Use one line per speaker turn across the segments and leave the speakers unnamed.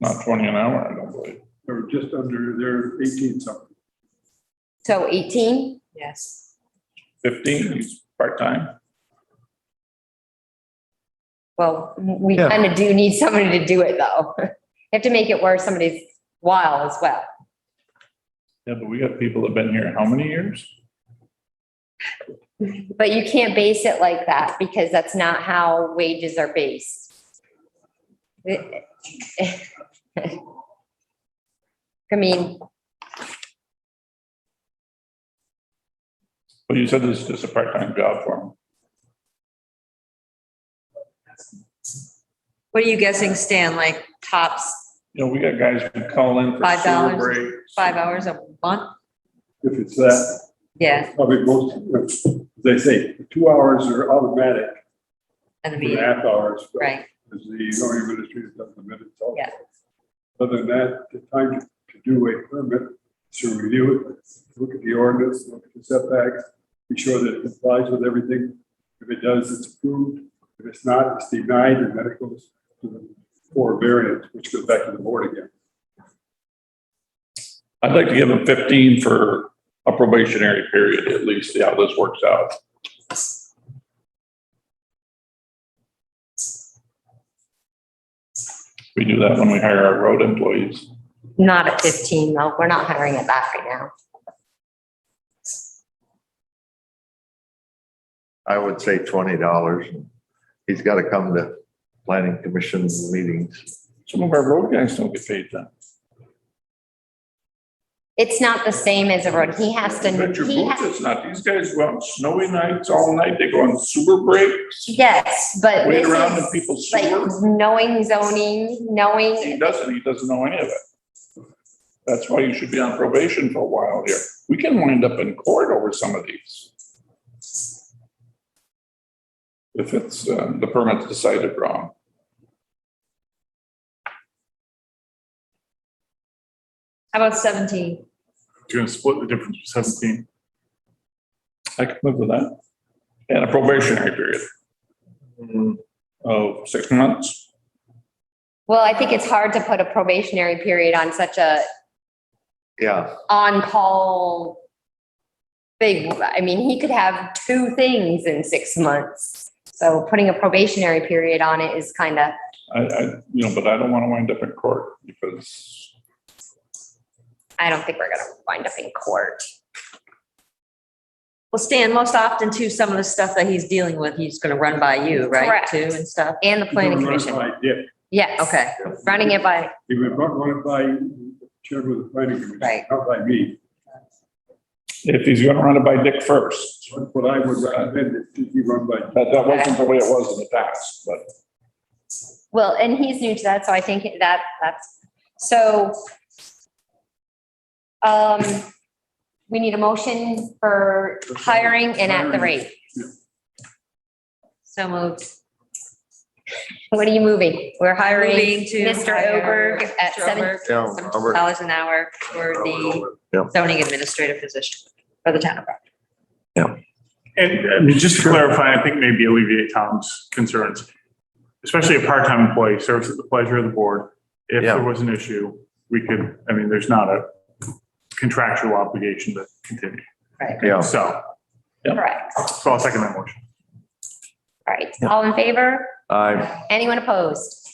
Not twenty an hour, I don't believe.
or just under, they're eighteen something.
So eighteen?
Yes.
Fifteen, he's part-time.
Well, we
Yeah.
kind of do need somebody to do it though. You Have to make it worth somebody's while as well.
Yeah, but we got people that've been here how many years?
But you can't base it like that because that's not how wages are based. I mean,
But you said this is just a part-time job for him.
What are you guessing, Stan, like tops
You know, we got guys who call in for
Five
sewer
dollars.
break.
five hours a month?
If it's that,
Yeah,
probably most, as I say, two hours are automatic, two and
and a
a
meeting,
half hours.
right,
As the zoning administrator does the minutes also.
Yeah.
Other than that, the time to- to do a permit, to review it, look at the ordinance, look at the setbacks, be sure that it complies with everything. If it does, it's approved. If it's not, it's denied, and then it goes to the for variance, which goes back to the board again.
I'd like to give him fifteen for a probationary period, at least, see how this works out. We do that when we hire our road employees.
not at fifteen though. We're not hiring at that right now.
I would say twenty dollars. He's got to come to planning commission meetings.
Some of our road guys don't get paid then.
It's not the same as a road. He has to,
But your
he
boat
has,
is not, these guys go on snowy nights all night, they go on sewer breaks,
yes, but
wait
this
around in
is
people's
like
sewer.
knowing zoning,
He
knowing,
doesn't, he doesn't know any of it. That's why you should be on probation for a while here. We can wind up in court over some of these. If it's, uh, the permit's decided wrong.
how about seventeen?
You're gonna split the difference for seventeen.
I can live with that. And a probationary period
Mm-hmm.
of six months.
well, I think it's hard to put a probationary period on such a
Yeah,
on-call thing. I mean, he could have two things in six months. So putting a probationary period on it is kind of,
I, I, you know, but I don't want to wind up in court because
I don't think we're gonna wind up in court.
Well, Stan, most often too, some of the stuff that he's dealing with, he's gonna run by you, right,
Correct.
too, and stuff?
And the planning
Run it
commission.
by Dick.
Yes.
Okay,
Running it by,
He would run run it by chairman of the planning commission.
Right.
Not by me.
if he's gonna run it by Dick first.
That's what I would recommend, it to be run by
That, that wasn't the way it was in the past, but
well, and he's new to that, so I think that, that's, so. Um, we need a motion for hiring and at the rate.
so moved.
What are you moving? We're hiring
Moving to
Mr.
hire
Oberg at
Mr.
seven,
Oberg,
yeah.
seventeen
Robert.
Dollars an hour for the zoning administrative position for the town of Brockton.
And I mean, just to clarify, I think maybe alleviate Tom's concerns, especially a part-time employee serves at the pleasure of the board. If
Yeah.
there was an issue, we could, I mean, there's not a contractual obligation to continue.
Yeah.
So,
correct.
so I'll second that motion.
All right, all in favor?
I,
Anyone opposed?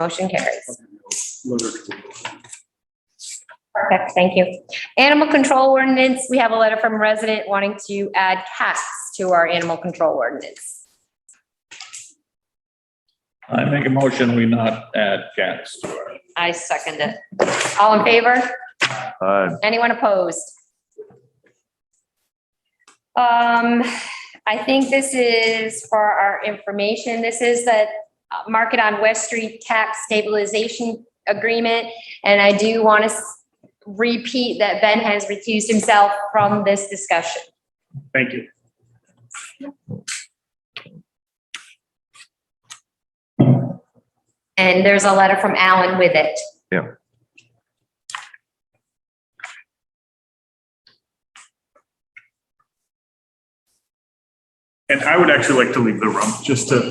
Motion carries.
letter.
Perfect, thank you. Animal control ordinance, we have a letter from a resident wanting to add cats to our animal control ordinance.
I make a motion, we not add cats to our
I second it.
All in favor?
I,
Anyone opposed? Um, I think this is for our information. This is the uh, Market on West Street Tax Stabilization Agreement. And I do want to repeat that Ben has recused himself from this discussion.
Thank you.
And there's a letter from Alan with it.
Yeah.
And I would actually like to leave the room just to